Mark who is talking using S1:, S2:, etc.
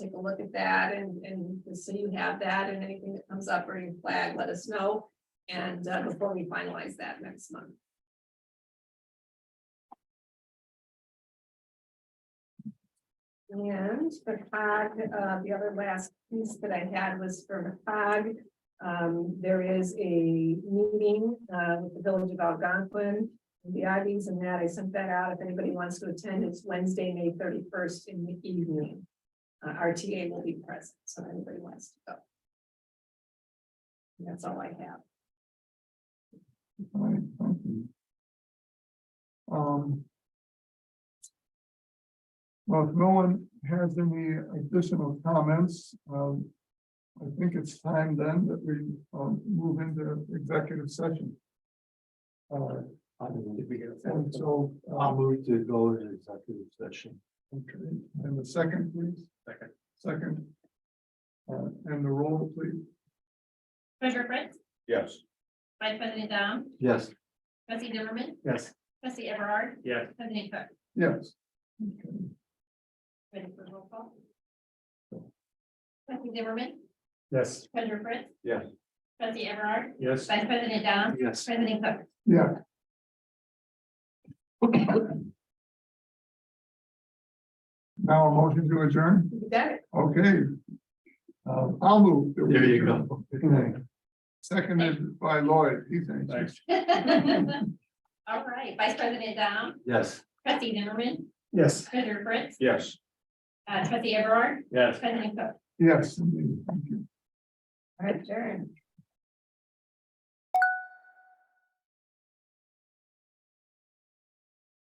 S1: we'll look at that and, and we'll see you have that and anything that comes up or you flag, let us know. And uh, before we finalize that next month. And the cog, uh, the other last piece that I had was for the cog. Um, there is a meeting, uh, with the village of Algonquin. The IVs and that, I sent that out. If anybody wants to attend, it's Wednesday, May thirty-first in the evening. Uh, RTA will be present, so if anybody wants to go. And That's all I have.
S2: All right, thank you. Um. Well, if no one has any additional comments, um, I think it's time then that we, um, move into executive session. Uh,
S3: Did we get a
S2: and
S3: second?
S2: so,
S3: I'll
S2: um,
S3: move to go to executive session.
S2: okay, and the second, please,
S3: Second.
S2: second. Uh, and the roll, please.
S4: Treasurer Prince,
S3: Yes.
S4: Vice President Dom,
S3: Yes.
S4: Trustee Zimmerman,
S3: Yes.
S4: Trustee Everard,
S3: Yes.
S4: President Cook.
S2: Yes. Okay.
S4: Ready for roll call? Trustee Zimmerman,
S3: Yes.
S4: Treasurer Prince.
S3: Yes.
S4: Trustee Everard,
S3: Yes.
S4: Vice President Dom,
S3: Yes.
S4: President Cook.
S2: Yeah. Now a motion to adjourn,
S1: You got it?
S2: okay. Uh, I'll move. that we
S3: There you
S2: adjourn.
S3: go.
S2: Seconded by Lloyd, he thinks.
S4: All right, Vice President Dom,
S3: Yes.
S4: Trustee Zimmerman,
S3: Yes.
S4: Treasurer Prince,
S3: Yes.
S4: uh, Trustee Everard,
S3: Yes.
S4: President Cook.
S2: Yes, indeed, thank you.
S1: All right, Jaren.